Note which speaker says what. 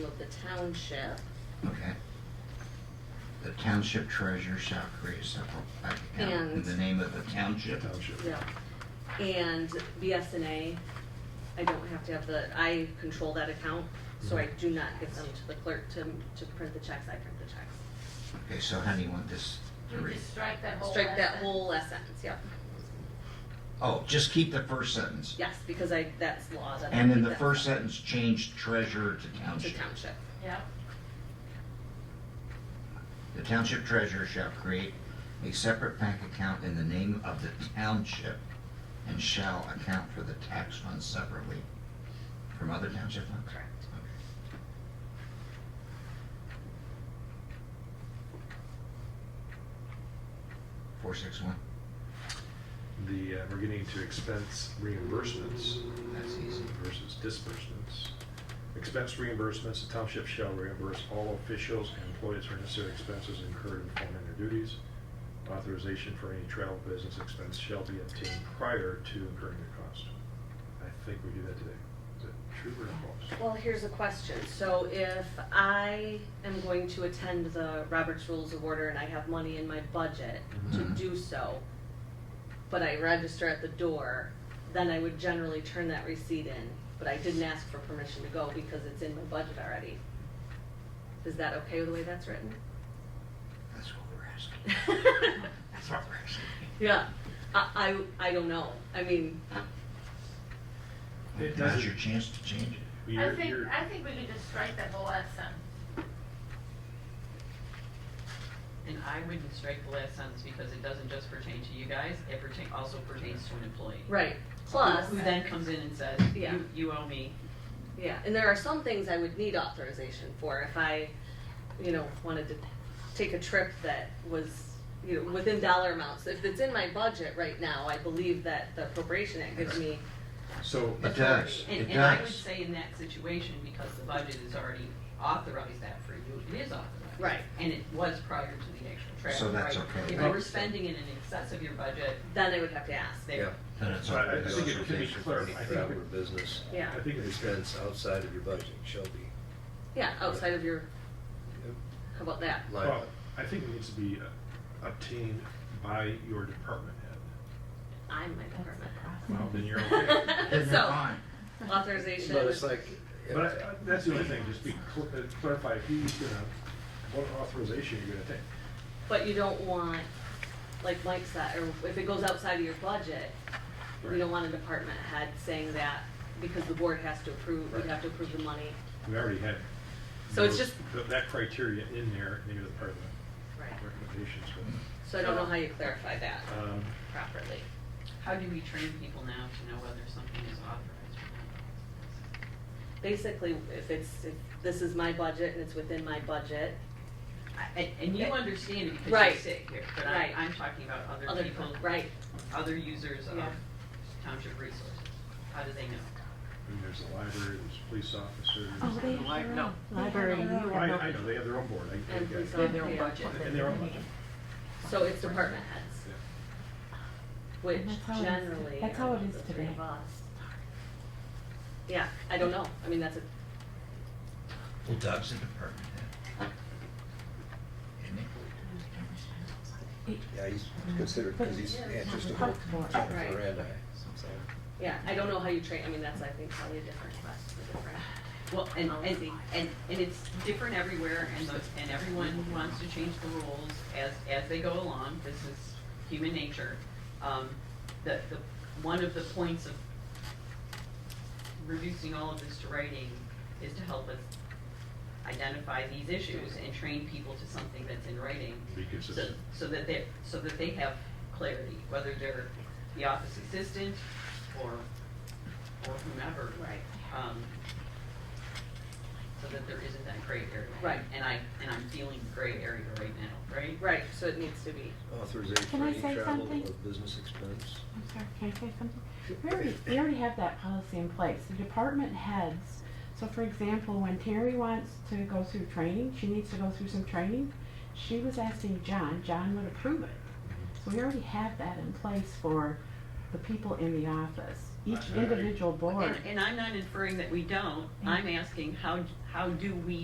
Speaker 1: the township.
Speaker 2: Okay. The township treasurer shall create a separate bank account in
Speaker 1: And-
Speaker 2: the name of the township.
Speaker 3: Township.
Speaker 1: Yeah. And BSNA, I don't have to have the, I control that account, so
Speaker 2: Mm-hmm.
Speaker 1: I do not give them to the clerk to, to print the checks, I print the checks.
Speaker 2: Okay, so how do you want this to
Speaker 4: You
Speaker 2: read?
Speaker 4: just strike that whole.
Speaker 1: Strike that
Speaker 4: lesson.
Speaker 1: whole last sentence, yep.
Speaker 2: Oh, just keep the first sentence.
Speaker 1: Yes, because I, that's law. that I
Speaker 2: And in
Speaker 1: keep
Speaker 2: the
Speaker 1: that
Speaker 2: first
Speaker 1: stuff
Speaker 2: sentence, change treasurer to
Speaker 1: To
Speaker 2: township.
Speaker 1: township.
Speaker 4: Yep,
Speaker 2: The township treasurer shall create a separate bank account in the name of the township and shall account for the tax funds separately from other township funds?
Speaker 1: Correct.
Speaker 2: Okay. Four, six, one,
Speaker 3: The, uh, we're getting to expense reimbursements
Speaker 2: that's easy.
Speaker 3: versus disbursements. Expense reimbursements, the township shall reimburse all officials and employees for necessary expenses incurred in performing their duties. Authorization for any travel business expense shall be obtained prior to incurring the cost. I think we do that today. Is that true or false?
Speaker 1: Well, here's a question. So if I am going to attend the Robert's Rules of Order and I have money in my budget to
Speaker 2: Mhm.
Speaker 1: do so, but I register at the door, then I would generally turn that receipt in, but I didn't ask for permission to go because it's in my budget already. Is that okay with the way that's written?
Speaker 2: That's what we're asking. That's what we're asking.
Speaker 1: Yeah, I, I, I don't know. I mean,
Speaker 2: Now's
Speaker 3: It doesn't-
Speaker 2: your chance to change it.
Speaker 4: I
Speaker 3: You're-
Speaker 4: think,
Speaker 3: you're-
Speaker 4: I think we could just strike that whole lesson.
Speaker 5: And I would strike the last sentence because it doesn't just pertain to you guys, it pertain, also pertains to an employee.
Speaker 1: right, plus.
Speaker 5: Who then comes in and says,
Speaker 1: Yeah.
Speaker 5: you, you owe me.
Speaker 1: Yeah, and there are some things I would need authorization for if I, you know, wanted to take a trip that was, you know, within dollar amounts. If it's in my budget right now, I believe that the appropriation act gives me,
Speaker 3: So,
Speaker 2: It does,
Speaker 5: And,
Speaker 2: it
Speaker 5: and I would
Speaker 2: does.
Speaker 5: say in that situation, because the budget is already authorized that for you, it is authorized.
Speaker 1: Right.
Speaker 5: And it was prior to the actual travel.
Speaker 2: So that's
Speaker 5: right?
Speaker 2: okay,
Speaker 5: If you
Speaker 2: right?
Speaker 5: were spending it in excess of your budget,
Speaker 1: then I would have to ask.
Speaker 5: there,
Speaker 2: Then it's
Speaker 3: So I- I
Speaker 2: okay.
Speaker 3: think it could be
Speaker 6: For
Speaker 3: clarified.
Speaker 6: any travel or business
Speaker 1: Yeah,
Speaker 3: I think it's good.
Speaker 6: expense outside of your budget shall be
Speaker 1: yeah, outside of your, how about that?
Speaker 3: Well,
Speaker 6: liable.
Speaker 3: I think it needs to be uh, obtained by your department head.
Speaker 1: I'm my department.
Speaker 3: Well, then you're okay.
Speaker 2: Then you're
Speaker 1: So,
Speaker 2: fine.
Speaker 1: authorization.
Speaker 6: But it's like, if-
Speaker 3: But I- I- that's the only thing, just be, cl- uh, clarify who's gonna, what authorization you're gonna take.
Speaker 1: But you don't want, like Mike said, or if it goes outside of your budget, we
Speaker 3: Right.
Speaker 1: don't want a department head saying that because the board has to approve, we'd
Speaker 3: Right.
Speaker 1: have to approve the money.
Speaker 3: We already had.
Speaker 1: So it's
Speaker 3: those-
Speaker 1: just-
Speaker 3: th- That criteria in there, and you're the part of the
Speaker 1: Right.
Speaker 3: recommendations, but,
Speaker 1: So I don't know how you clarify that
Speaker 3: um,
Speaker 1: properly.
Speaker 5: how do we train people now to know whether something is authorized or not?
Speaker 1: Basically, if it's, if this is my budget and it's within my budget,
Speaker 5: I- And, and you understand it because
Speaker 1: Right.
Speaker 5: you sit here, but I,
Speaker 1: Right.
Speaker 5: I'm talking about other
Speaker 1: other
Speaker 5: people,
Speaker 1: people, right,
Speaker 5: other users of
Speaker 1: Yeah.
Speaker 5: township resources. How do they know?
Speaker 3: and there's the library, there's police officers.
Speaker 1: Oh,
Speaker 5: they have their No.
Speaker 7: Library, you Oh, have
Speaker 3: I,
Speaker 7: no.
Speaker 3: I know, they have their own board, I, I
Speaker 1: And
Speaker 3: get it.
Speaker 1: police officers.
Speaker 5: their own
Speaker 1: Yeah.
Speaker 5: budget.
Speaker 3: And their own budget,
Speaker 1: so it's department heads,
Speaker 3: yeah.
Speaker 1: which
Speaker 7: That's how it is-
Speaker 1: generally
Speaker 7: that's
Speaker 1: are
Speaker 7: how it
Speaker 1: the
Speaker 7: is
Speaker 1: three
Speaker 7: today.
Speaker 1: of us. Yeah, I don't know, I mean, that's a,
Speaker 2: Well, Doug's a department head. Isn't he?
Speaker 6: yeah, he's considered, because he's answers to both.
Speaker 1: Right.
Speaker 6: Miranda.
Speaker 1: yeah, I don't know how you train, I mean, that's, I think, probably different, that's the different.
Speaker 5: Well, and, and, and, and it's different everywhere and the, and everyone wants to change the rules as, as they go along, this is human nature. Um, the, the, one of the points of reducing all of this to writing is to help us identify these issues and train people to something that's in writing.
Speaker 3: Be
Speaker 5: So-
Speaker 3: consistent.
Speaker 5: So that they, so that they have clarity, whether they're the office assistant or, or whomever.
Speaker 1: Right.
Speaker 5: Um, so that there isn't that gray area.
Speaker 1: Right.
Speaker 5: And I, and I'm feeling gray area right now, right?
Speaker 1: Right, so it needs to be,
Speaker 6: Authorization
Speaker 7: Can
Speaker 6: for
Speaker 7: I
Speaker 6: any
Speaker 7: say
Speaker 6: travel
Speaker 7: something?
Speaker 6: or business expense.
Speaker 7: I'm sorry, can I say something? We already, we already have that policy in place, the department heads, so for example, when Terry wants to go through training, she needs to go through some training, she was asking John, John would approve it. So we already have that in place for the people in the office, each
Speaker 3: I- I-
Speaker 7: individual board.
Speaker 5: And, and I'm not inferring that we don't, I'm asking how, how do we